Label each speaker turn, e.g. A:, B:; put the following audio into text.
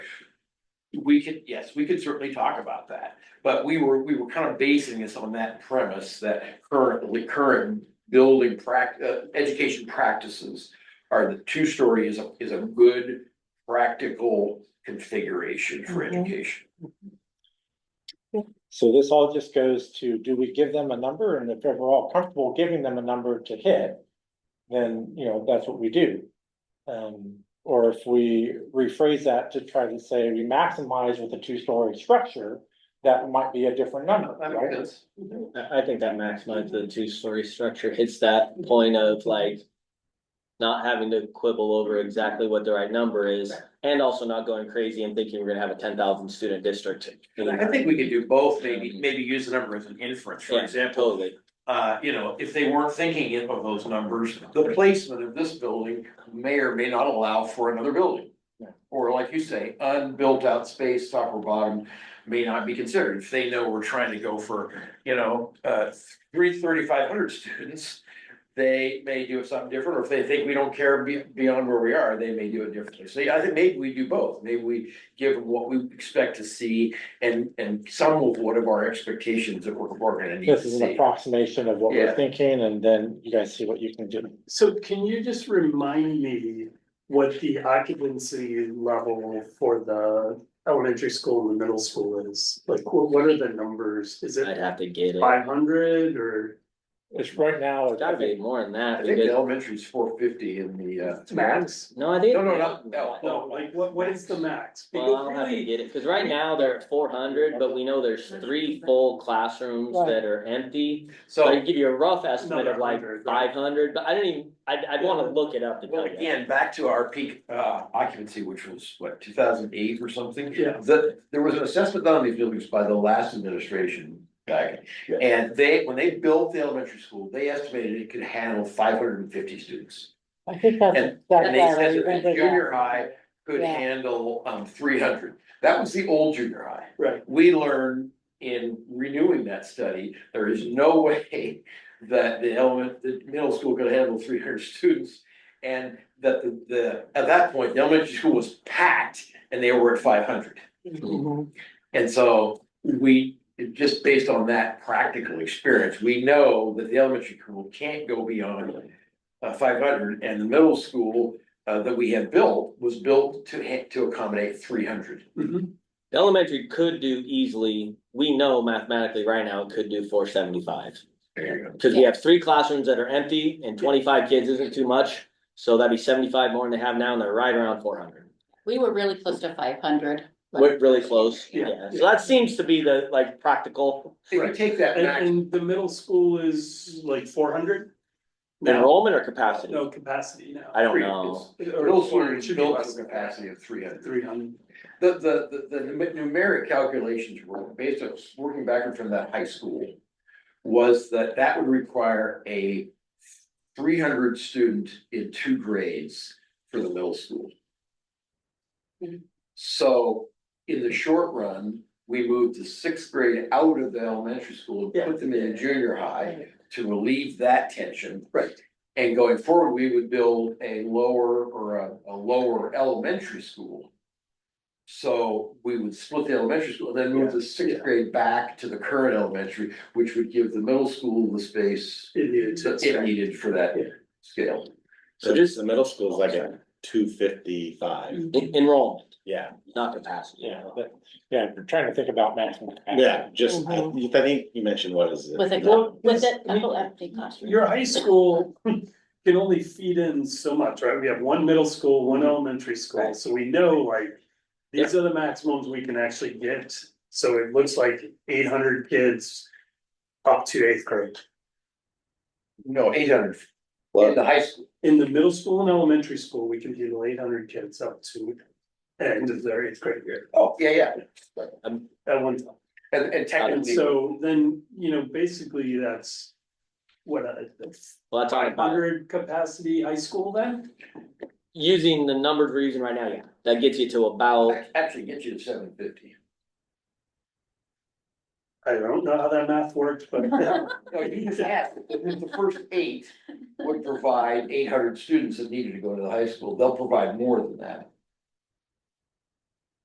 A: We could, yes, we could certainly talk about that, but we were, we were kind of basing this on that premise that currently, current building prac, uh, education practices. Are the two-story is a, is a good practical configuration for
B: Mhm.
A: education.
C: So this all just goes to, do we give them a number? And if we're all comfortable giving them a number to hit, then, you know, that's what we do. Um, or if we rephrase that to try to say we maximize with a two-story structure, that might be a different number,
A: That makes
C: right?
A: sense.
D: I, I think that maximizes the two-story structure, hits that point of like. Not having to quibble over exactly what the right number is, and also not going crazy and thinking we're gonna have a ten thousand student district.
A: I think we could do both, maybe, maybe use the number as an inference, for
D: Yeah,
A: example.
D: Totally,
A: uh, you know, if they weren't thinking of those numbers, the placement of this building may or may not allow for another building.
C: Yeah.
A: Or like you say, unbuilt out space, top or bottom, may not be considered. If they know we're trying to go for, you know, uh, three thirty-five hundred students, they may do something different, or if they think we don't care be- beyond where we are, they may do it differently. So yeah, I think maybe we do both. Maybe we give them what we expect to see and, and some of what of our expectations that we're, we're gonna need to
C: This is
A: see.
C: an approximation of what we're
A: Yeah.
C: thinking, and then you guys see what you can do.
B: So can you just remind me what the occupancy level for the elementary school and the middle school is? Like, wh- what are the numbers? Is
D: I'd
B: it
D: have to get it,
B: five hundred or?
C: It's right now, it's
D: gotta be more than that,
A: I think the
D: because,
A: elementary is four fifty in the, uh.
B: Max?
D: no, I think.
A: No, no, no, no.
B: No, like what, what is the max?
D: Well,
B: Because
D: I'll have to
B: really,
D: get it, cause right now they're at four hundred, but we know there's three full classrooms
C: Right.
D: that are empty. So I
A: So,
D: can give you a rough estimate
B: Another
D: of like
B: 100, right.
D: five hundred, but I don't even, I'd, I'd wanna look it up to
A: well,
D: tell you.
A: again, back to our peak, uh, occupancy, which was what, two thousand eight or something?
B: Yeah.
A: The, there was an assessment done on these buildings by the last administration guy.
C: Yeah.
A: And they, when they built the elementary school, they estimated it could handle five hundred and fifty students.
E: I think that's. that's
A: And they
E: all
A: said
E: right,
A: that the
E: remember
A: junior
E: that.
A: high could
E: Yeah.
A: handle, um, three hundred. That was the old junior high.
B: Right,
A: we learned in renewing that study, there is no way that the element, the middle school could handle three hundred students. And that the, the, at that point, the elementary school was packed and they were at five hundred.
E: Mhm.
A: And so we, just based on that practical experience, we know that the elementary school can't go beyond uh, five hundred and the middle school uh, that we had built was built to ha- to accommodate three hundred.
D: The Elementary could do easily, we know mathematically right now it could do four seventy-five.
A: There you go.
D: Cause we have three classrooms that are empty and twenty-five kids isn't too much, so that'd be seventy-five more than they have now and they're right around four hundred.
F: We were really close to five hundred.
D: We're really close,
B: Yeah.
D: yeah, so that seems to be the like practical
A: If you take that
B: and,
A: back.
B: and the middle school is like four hundred?
D: enrollment or capacity,
B: No capacity now.
D: I don't know.
A: Middle school is built to a capacity of three hundred.
B: Three hundred.
A: The, the, the, the num- numeric calculations were based on, working backward from that high school. Was that that would require a three hundred student in two grades for the middle school.
B: Mm-hmm.
E: Mhm.
A: So in the short run, we moved the sixth grade out of the elementary school and
B: Yeah.
A: put them in junior high to relieve that tension.
B: Right.
A: And going forward, we would build a lower or a, a lower elementary school. So we would split the elementary school, then move the sixth
B: Yeah.
A: grade back to the current elementary, which would give the middle school the space
B: It is.
A: that it needed for that
B: Yeah.
A: scale.
D: so just
G: The middle school is like a two fifty-five,
F: Mm.
D: en- enrollment,
G: yeah,
D: not capacity.
C: Yeah, but, yeah, we're trying to think about maximum. capacity.
G: yeah, just, I I think you mentioned what is it?
F: With a,
B: Well,
F: cou-
B: yes,
F: with a
B: I mean,
F: couple empty classrooms.
B: Your high school can only feed in so much, right? We have one middle school, one elementary school,
D: Right.
B: so we know like. These are the maximums we can actually get, so it looks like eight hundred kids up to eighth grade.
A: No, eight hundred in
G: Well,
A: the high school.
B: In the middle school and elementary school, we can handle eight hundred kids up to end of their eighth grade year
A: Oh, yeah, yeah.
B: at one time.
A: And, and
B: And
A: technically,
B: so then, you know, basically that's what a
D: Well, that's all
B: five
D: about,
B: hundred capacity high school then?
D: using the numbered reason right now, yeah, that gets you to about
A: ac- actually gets you to seven fifty.
B: I don't know how that math worked, but.
A: No, you just asked, if the first eight would provide eight hundred students that needed to go to the high school, they'll provide more than that.